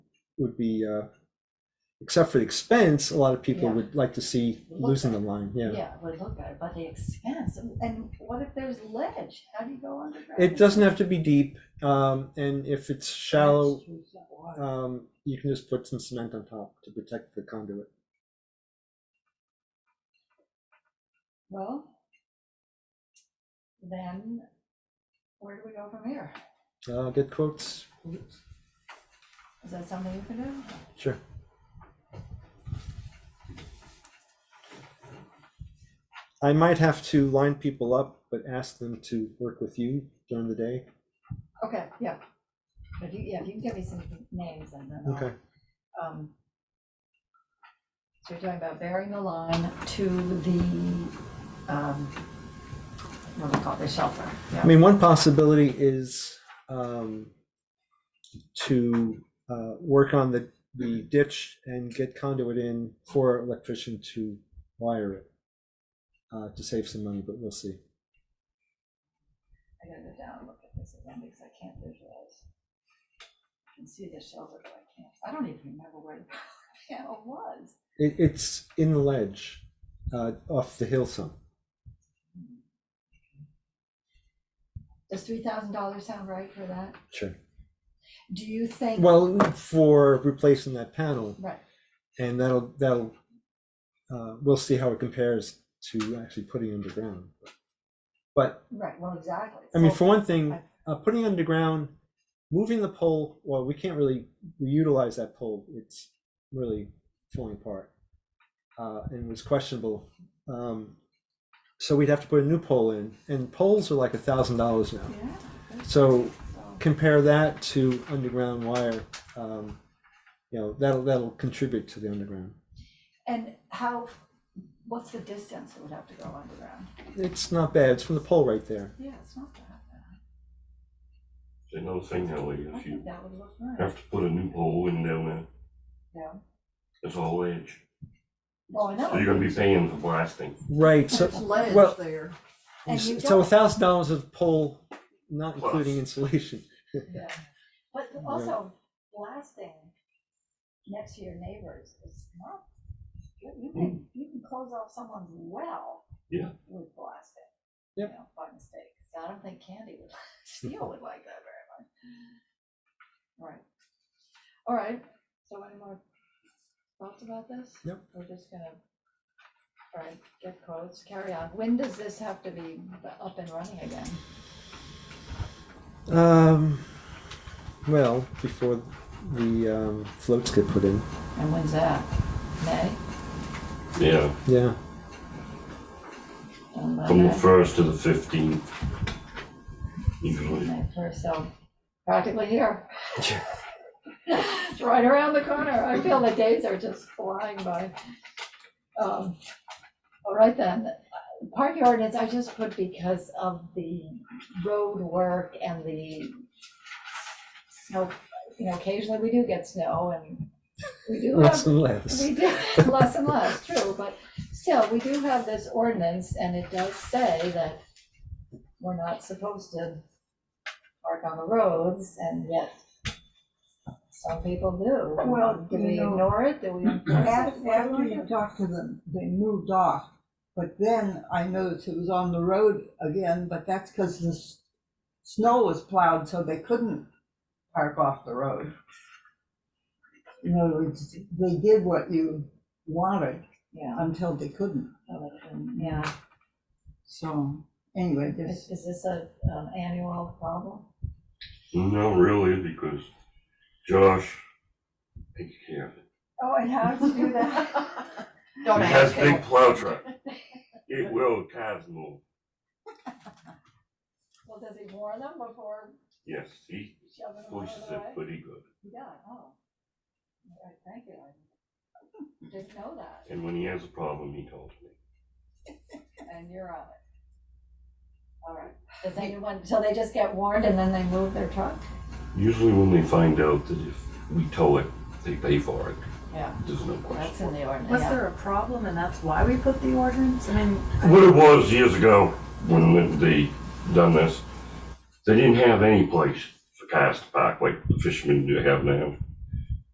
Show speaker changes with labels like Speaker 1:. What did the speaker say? Speaker 1: would be, uh, except for the expense, a lot of people
Speaker 2: Yeah.
Speaker 1: would like to see
Speaker 2: Look
Speaker 1: losing
Speaker 2: at
Speaker 1: the line, yeah.
Speaker 2: Yeah, would look better, but the expense, and what if there's ledge? How do you go underground?
Speaker 1: It doesn't have to be deep, um, and if it's shallow,
Speaker 2: Water.
Speaker 1: um, you can just put some cement on top to protect the conduit.
Speaker 2: Well, then where do we go from here?
Speaker 1: Uh, get quotes,
Speaker 2: Is that something you can do?
Speaker 1: sure. I might have to line people up, but ask them to work with you during the day.
Speaker 2: Okay, yeah. If you, yeah, if you can give me some names and then. I'll-
Speaker 1: Okay,
Speaker 2: um, So you're talking about bearing the line to the, um, what do we call it, the shelter?
Speaker 1: I mean, one possibility is, um, to, uh, work on the, the ditch and get conduit in for electrician to wire it. Uh, to save some money, but we'll see.
Speaker 2: I gotta go down and look at this again because I can't visualize. I can see the shelter, but I can't, I don't even remember where the panel was.
Speaker 1: It, it's in the ledge, uh, off the hill some.
Speaker 2: Does three thousand dollars sound right for that?
Speaker 1: Sure.
Speaker 2: Do you think?
Speaker 1: Well, for replacing that panel,
Speaker 2: Right,
Speaker 1: and that'll, that'll, uh, we'll see how it compares to actually putting underground. But,
Speaker 2: right, well, exactly.
Speaker 1: I mean,
Speaker 2: So-
Speaker 1: for one thing, uh, putting underground, moving the pole, well, we can't really utilize that pole. It's really falling apart. Uh, and was questionable. Um, so we'd have to put a new pole in, and poles are like a thousand dollars now.
Speaker 2: Yeah,
Speaker 1: So
Speaker 2: so,
Speaker 1: compare that to underground wire, um, you know, that'll, that'll contribute to the underground.
Speaker 2: and how, what's the distance it would have to go underground?
Speaker 1: It's not bad, it's from the pole right there.
Speaker 2: Yeah, it's not that bad.
Speaker 3: Another thing,
Speaker 2: I
Speaker 3: Ellie, if
Speaker 2: think
Speaker 3: you
Speaker 2: that would look nice,
Speaker 3: have to put a new pole in down there,
Speaker 2: yeah.
Speaker 3: it's all ledge.
Speaker 2: Oh, I
Speaker 3: So
Speaker 2: know.
Speaker 3: you're gonna be paying for blasting.
Speaker 1: Right, so,
Speaker 4: There's ledge
Speaker 1: well-
Speaker 4: there.
Speaker 2: And you
Speaker 1: so a
Speaker 2: don't-
Speaker 1: thousand dollars of pole, not
Speaker 3: Plus.
Speaker 1: including insulation.
Speaker 2: Yeah, but also blasting next to your neighbors is not, you you can, you can close off someone's well.
Speaker 3: Yeah.
Speaker 2: With blasting.
Speaker 1: Yep.
Speaker 2: You know, by mistake, so I don't think Candy would, Steele would like that very much. Right, all right, so any more thoughts about this?
Speaker 1: Yep.
Speaker 2: We're just gonna, all right, get quotes, carry on, when does this have to be up and running again?
Speaker 1: Um, well, before the, um, floats get put in,
Speaker 2: And when's that, May?
Speaker 3: Yeah,
Speaker 1: yeah.
Speaker 2: Done by
Speaker 3: from the
Speaker 2: May?
Speaker 3: first to the fifteenth. Usually,
Speaker 2: My first, so practically here. It's right around the corner. I feel the days are just flying by. Um, All right then, park ordinance, I just put because of the road work and the snow, you know, occasionally we do get snow and we do have
Speaker 1: Less and less.
Speaker 2: we do, less and less, true, but still, we do have this ordinance, and it does say that we're not supposed to park on the roads, and yet some people do.
Speaker 4: Well,
Speaker 2: Do
Speaker 4: you
Speaker 2: we
Speaker 4: know-
Speaker 2: ignore it? Do we? enforce it?
Speaker 4: After,
Speaker 2: What do
Speaker 4: after
Speaker 2: we
Speaker 4: you
Speaker 2: do?
Speaker 4: talked to them, they moved off, but then I noticed it was on the road again, but that's because the s- snow was plowed, so they couldn't park off the road. In other words, they did what you wanted
Speaker 2: Yeah.
Speaker 4: until they couldn't,
Speaker 2: so it can- Yeah,
Speaker 4: so, anyway,
Speaker 2: is,
Speaker 4: this,
Speaker 2: is this a, an annual problem?
Speaker 3: no, really, because Josh takes care of it.
Speaker 2: Oh, it has to do that.
Speaker 3: He has big plow truck. It will, cars move.
Speaker 2: Well, does he warn them before
Speaker 3: Yes, he
Speaker 2: shoving them out
Speaker 3: pushes
Speaker 2: of the
Speaker 3: it
Speaker 2: way?
Speaker 3: pretty good.
Speaker 2: Yeah, oh. All right, thank you. I Didn't know that,
Speaker 3: And when he has a problem, he tells me.
Speaker 2: and you're on it. All right, does anyone, so they just get warned and then they move their truck?
Speaker 3: Usually when they find out that if we tow it, they pay for it.
Speaker 2: Yeah,
Speaker 3: There's no question.
Speaker 2: that's in the ordinance.
Speaker 5: Was
Speaker 2: yeah.
Speaker 5: there a problem and that's why we put the ordinance? I mean,
Speaker 3: What it was years ago when they done this, they didn't have any place for cars to park like the fishermen do have now.